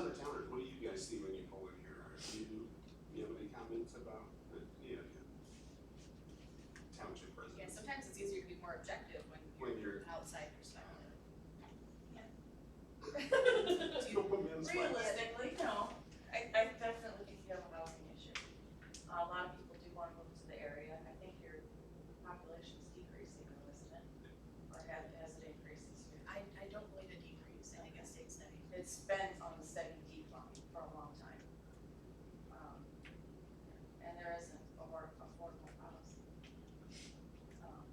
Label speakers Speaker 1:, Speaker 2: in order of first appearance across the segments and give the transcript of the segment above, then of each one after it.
Speaker 1: uh,
Speaker 2: more objective when
Speaker 1: when
Speaker 2: you're
Speaker 1: you're,
Speaker 2: an outside perspective.
Speaker 1: you don't put me in the spot.
Speaker 3: Realistically, no, I, I definitely think you have a housing issue. A lot of people do want to move to the area, and I think your population's decreasing, though, isn't it? Or has, has it increased this year?
Speaker 2: I, I don't believe it decreased, I think it stayed steady.
Speaker 3: It's been on a steady decline for a long time. Um, And there isn't a more affordable house. Um,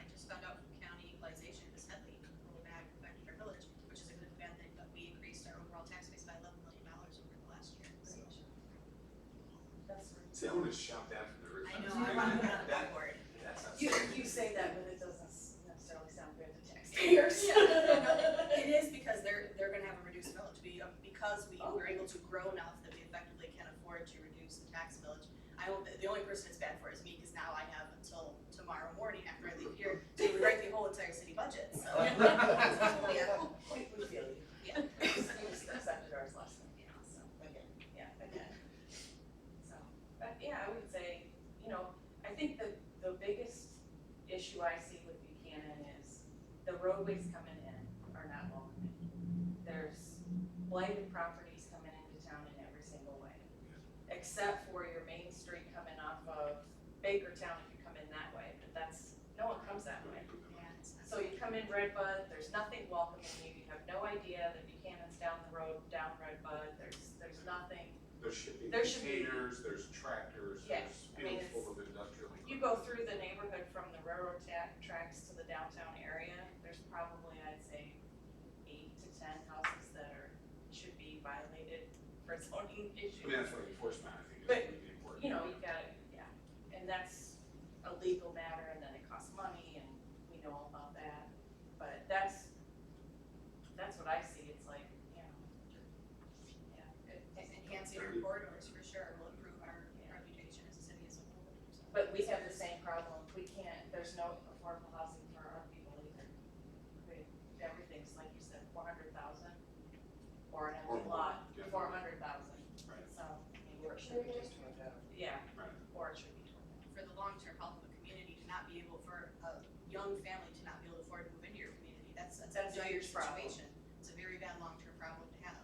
Speaker 2: I just found out from county equalization, Ms. Headley, when we back affected our village, which is a good and bad thing, but we increased our overall tax base by eleven million dollars over the last year, so.
Speaker 3: That's right.
Speaker 1: See, I would have shot that from the roof.
Speaker 2: I know, I wanna put on the
Speaker 1: That-
Speaker 2: board.
Speaker 1: That's not.
Speaker 3: You,
Speaker 1: something-
Speaker 3: you say that, but it doesn't s- necessarily sound good to taxpayers.
Speaker 2: Yeah, no, no, it is because they're, they're gonna have a reduced village, we, um, because we were able to grow enough that we effectively can afford to reduce the tax village. I will, the only person it's bad for is me, cause now I have until tomorrow morning after I leave here to rewrite the whole entire city budget, so. Yeah,
Speaker 3: We, we feel you.
Speaker 2: yeah,
Speaker 3: We just accepted ours last time.
Speaker 2: yeah, so,
Speaker 3: Again. Yeah, again. So, but yeah, I would say, you know, I think the, the biggest issue I see with Buchanan is the roadways coming in are not welcoming. There's blighted properties coming into town in every single way. Except for your main street coming off of Bakertown if you come in that way, but that's, no one comes that way.
Speaker 2: yeah, it's not-
Speaker 3: So you come in Redbud, there's nothing welcoming you, you have no idea that Buchanan's down the road, down Redbud, there's, there's nothing.
Speaker 1: There's shipping
Speaker 3: There should be-
Speaker 1: containers, there's tractors,
Speaker 3: Yeah,
Speaker 1: there's
Speaker 3: I
Speaker 1: fields
Speaker 3: mean, it's-
Speaker 1: full of industrial.
Speaker 3: You go through the neighborhood from the railroad ta- tracks to the downtown area, there's probably, I'd say, eight to ten houses that are, should be violated for
Speaker 1: I mean,
Speaker 3: zoning issues.
Speaker 1: that's why enforcement, I think, is
Speaker 3: But,
Speaker 1: really important.
Speaker 3: You know, you've got, yeah, and that's a legal matter and then it costs money and we know all about that. But that's, that's what I see, it's like, you know,
Speaker 2: Enhancing our corridors for sure will improve our reputation as a city as a whole. so.
Speaker 3: But we have the same problem, we can't, there's no affordable housing for our people either. We- Everything's, like you said, four hundred thousand, or an
Speaker 1: Or
Speaker 3: empty
Speaker 1: more,
Speaker 3: lot,
Speaker 1: yeah.
Speaker 3: four hundred thousand,
Speaker 1: Right.
Speaker 3: so, I mean, or it should be just toward that. Yeah,
Speaker 1: Right.
Speaker 3: or it should be toward that.
Speaker 2: for the long-term health of a community to not be able, for a young family to not be able to afford to move into your community, that's, that's a
Speaker 3: That's a
Speaker 2: dire
Speaker 3: huge problem.
Speaker 2: situation. It's a very bad long-term problem to have.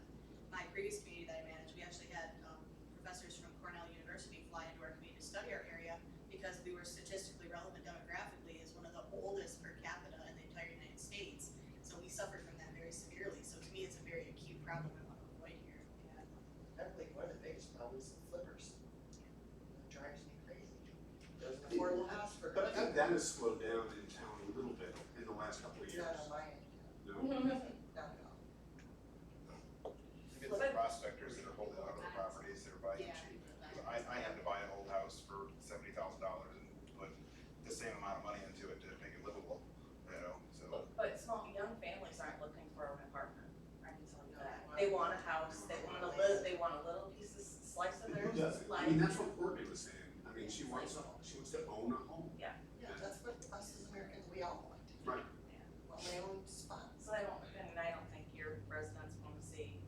Speaker 2: My previous community that I managed, we actually had, um, professors from Cornell University fly into our community to study our area because we were statistically relevant demographically as one of the oldest per capita in the entire United States. So we suffered from that very severely, so to me, it's a very acute problem I want to avoid here.
Speaker 4: I believe one of the biggest problems is flippers. It drives me crazy. There's an affordable house for.
Speaker 1: But I think that has slowed down in town a little bit in the last couple of
Speaker 4: It's
Speaker 1: years.
Speaker 4: not on my end,
Speaker 1: No,
Speaker 3: Mm-hmm.
Speaker 4: not at all.
Speaker 5: It's the prospectors that are holding on to the properties that are buying
Speaker 2: Yeah.
Speaker 5: cheap. I, I had to buy an old house for seventy thousand dollars and put the same amount of money into it to make it livable, you know, so.
Speaker 3: But, but small, young families aren't looking for an apartment, I can tell you
Speaker 4: No,
Speaker 3: that.
Speaker 4: why
Speaker 3: They
Speaker 4: would
Speaker 3: want a house, they want a little, they want a little piece of s- slice of their
Speaker 1: who doesn't? I
Speaker 3: life.
Speaker 1: mean, that's what Courtney was saying. I mean, she wants, a- she wants to own a home.
Speaker 4: Yeah, that's what us as Americans, we all want.
Speaker 1: Right.
Speaker 3: Yeah.
Speaker 4: Want my own spot.
Speaker 3: So I don't, and I don't think your residents wanna see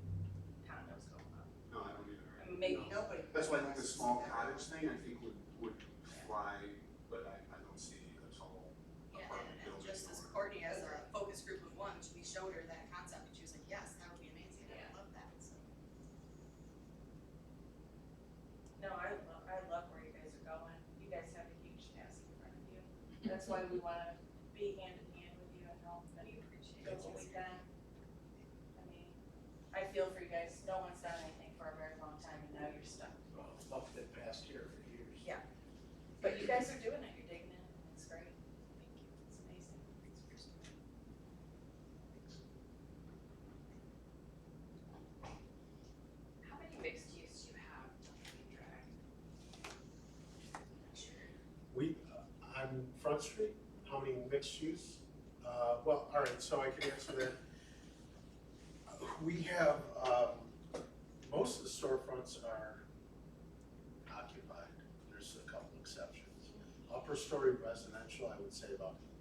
Speaker 3: condos going up.
Speaker 1: No, I don't either.
Speaker 3: I mean, Maybe
Speaker 4: Nobody.
Speaker 1: That's why I think the small cottage
Speaker 4: wants to
Speaker 1: thing, I think would, would fly, but I, I don't see a tall
Speaker 2: Yeah, and-
Speaker 1: apartment
Speaker 2: and
Speaker 1: building.
Speaker 2: just as
Speaker 1: or-
Speaker 2: Courtney as a focus group of one, we showed her that concept and she was like, yes, that would be amazing, I would love that, so.
Speaker 3: No, I love, I love where you guys are going. You guys have a huge task in front of you. That's why we wanna be hand in hand with you and help and
Speaker 2: We appreciate
Speaker 3: do what we can. I mean, I feel for you guys. No one's done anything for a very long time and now you're stuck.
Speaker 6: Well,
Speaker 7: uh,
Speaker 6: buffed it past here for years.
Speaker 3: But you guys are doing it. You're digging in. It's great. Thank you. It's amazing.
Speaker 8: How many mixed use do you have on Green Drive?
Speaker 7: We, uh, on Front Street, how many mixed use? Uh, well, all right, so I can answer that. We have, um, most of the storefronts are occupied, there's a couple exceptions. Upper story residential, I would say about